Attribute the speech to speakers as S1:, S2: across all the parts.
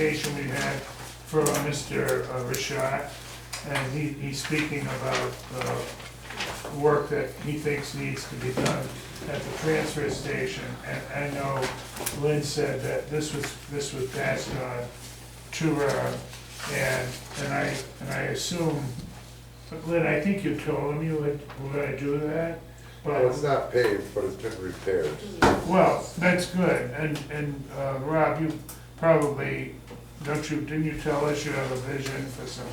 S1: presentation we had for uh, Mr. Rashad, and he, he's speaking about uh, work that he thinks needs to be done at the transfer station. And I know Lynn said that this was, this was passed on to her, and, and I, and I assume, but Lynn, I think you told him you would, were gonna do that, but.
S2: Well, it's not paved, but it's been repaired.
S1: Well, that's good, and, and, uh, Rob, you probably, don't you, didn't you tell us you have a vision for some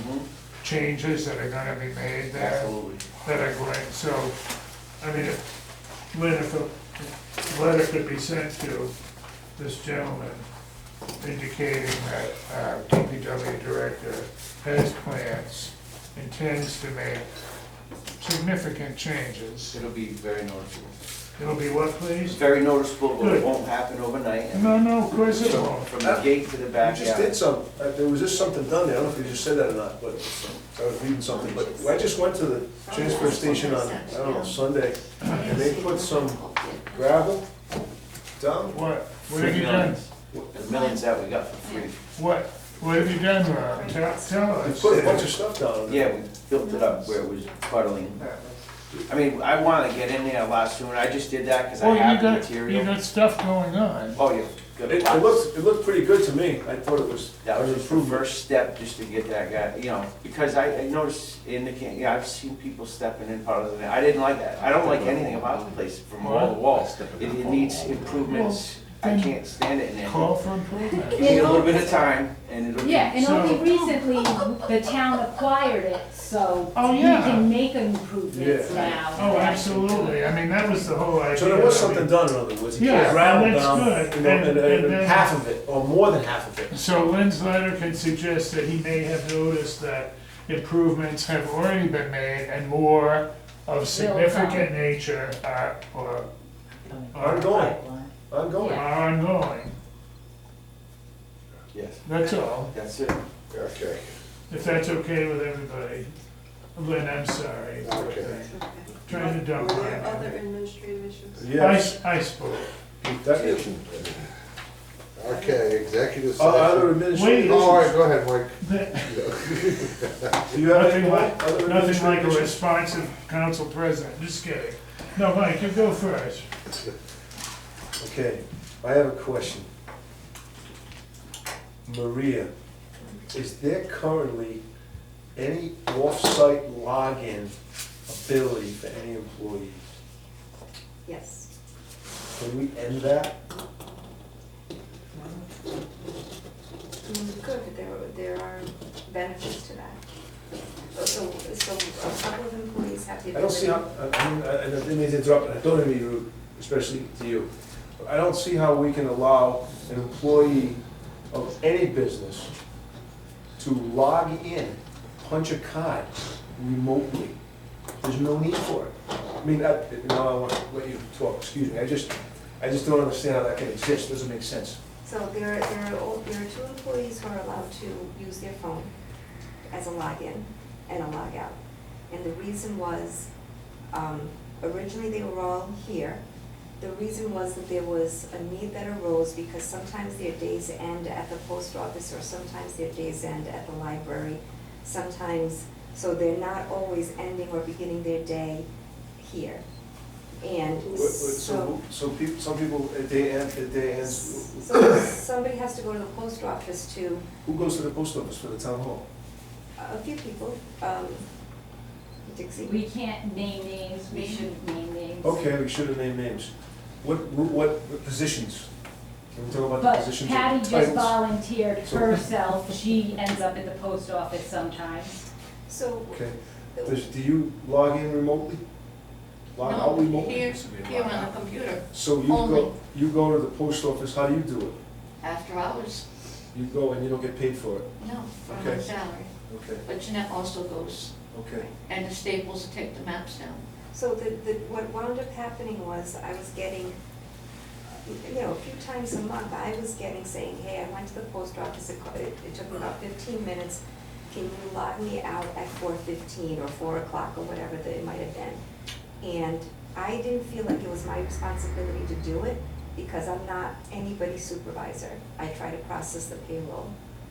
S1: changes that are gonna be made there?
S3: Absolutely.
S1: That are going, so, I mean, if, Lynn, if a letter could be sent to this gentleman indicating that, uh, DPW director has plans, intends to make significant changes,
S3: It'll be very noticeable.
S1: it'll be what,
S3: It's
S1: please?
S3: very noticeable, but
S1: Good.
S3: it won't happen overnight. and
S1: No, no, of course it
S3: From
S1: won't.
S3: from the gate to the
S4: You
S3: back,
S4: just did
S3: yeah.
S4: some, uh, there was just something done there, I don't know if you just said that or not, but I was reading something, but I just went to the transfer station on, I don't know, Sunday, and they put some gravel down.
S1: What, what have you done?
S3: The millions that we got for free.
S1: What, what have you done, Rob? Tell, tell
S4: They
S1: us.
S4: put a bunch of stuff down.
S3: Yeah, we built it up where it was puddling. I mean, I wanna get in there a lot sooner. I just did that because I
S1: Well, Oh, you
S3: have the
S1: got, you
S3: material.
S1: got stuff going on.
S3: Oh, yeah.
S4: It,
S3: got
S4: it
S3: lots.
S4: looked, it looked pretty good to me, I thought it was,
S3: That was
S4: an
S3: just the
S4: improvement.
S3: first step, just to get that guy, you know, because I, I noticed in the, can- yeah, I've seen people stepping in part of the, I didn't like that. I don't like anything about the place from wall to wall. It, it needs improvements. I can't stand it in there.
S1: Call for improvement.
S3: Give me a little bit of time and it'll be.
S5: Yeah, and only
S1: So-
S5: recently the town acquired it, so
S1: Oh,
S5: we
S1: yeah.
S5: can make improvements
S4: Yeah.
S5: now.
S1: Oh, absolutely. I mean, that was the whole idea.
S4: So there was
S1: I mean,
S4: something done, in other words.
S1: Yeah,
S4: It was ground
S1: that's
S4: down,
S1: good.
S4: you know,
S1: And-
S4: and-
S1: and
S4: and
S1: then-
S4: Half of it, or more than half of it.
S1: So Lynn's letter can suggest that he may have noticed that improvements have already been made and more of significant nature are, or, are
S4: Ongoing, ongoing.
S1: are ongoing.
S3: Yes,
S1: That's all.
S3: that's it.
S2: Okay,
S1: If that's okay with everybody. Lynn, I'm sorry.
S2: Okay.
S1: Trying to dump
S6: Were
S1: on
S6: there
S1: you.
S6: other administrative issues?
S1: I,
S4: Yes,
S1: I spoke.
S4: that is.
S2: okay, executive
S4: Uh, Other
S2: session.
S4: administrative.
S1: Wait.
S2: Oh, All right, go ahead, Mike.
S4: Do you have any
S1: Nothing
S4: more?
S1: like, nothing
S4: Other
S1: like a
S4: administrative-
S1: responsive council president, just kidding. No, Mike, you go first.
S4: Okay, I have a question. Maria, is there currently any off-site login ability for any employees?
S6: Yes.
S4: Can we end that?
S6: Mm, Good, but there, there are benefits to that. So, so a couple of employees have the
S4: I don't see
S6: ability.
S4: how, I- I mean, I I didn't mean to interrupt, and I don't mean to be rude, especially to you. But I don't see how we can allow an employee of any business to log in, punch a card remotely. There's no need for it. I mean, I, now I want to let you talk, excuse me, I just, I just don't understand how that can exist, doesn't make sense.
S6: So there, are- there are, o- there are two employees who are allowed to use their phone as a login and a logout. And the reason was, um, originally they were all here. The reason was that there was a need that arose because sometimes their days end at the post office or sometimes their days end at the library. Sometimes, so they're not always ending or beginning their day here. And
S4: Wh- wh-
S6: so.
S4: So, so people, some people, uh, they end, they ends.
S6: So somebody has to go to the post office to,
S4: who goes to the post office for the town hall?
S6: a few people, um, Dixie.
S5: We can't name names, we shouldn't name names.
S4: Okay, we should have named names. What, what, what positions? Can we talk about the
S5: But
S4: positions? or
S5: Patty just
S4: titles?
S5: volunteered
S4: So-
S5: herself, she ends up at the post office sometimes.
S6: So,
S4: Okay, Does- do you log in remotely? Log
S7: No,
S4: out remotely?
S7: Here, here on the computer,
S4: So you
S7: only.
S4: go, you go to the post office, how do you do it?
S7: after hours,
S4: You go and you don't get paid for it?
S7: no, from
S4: Okay.
S7: her salary.
S4: Okay,
S7: But Jeanette also goes,
S4: okay.
S7: and the Staples take the maps down.
S6: so the, the, what wound up happening was I was getting, you know, a few times a month, I was getting saying, hey, I went to the post office, it, co- it it took me about fifteen minutes. Can you log me out at four fifteen or four o'clock or whatever that it might have been? And I didn't feel like it was my responsibility to do it because I'm not anybody's supervisor. I try to process the payroll.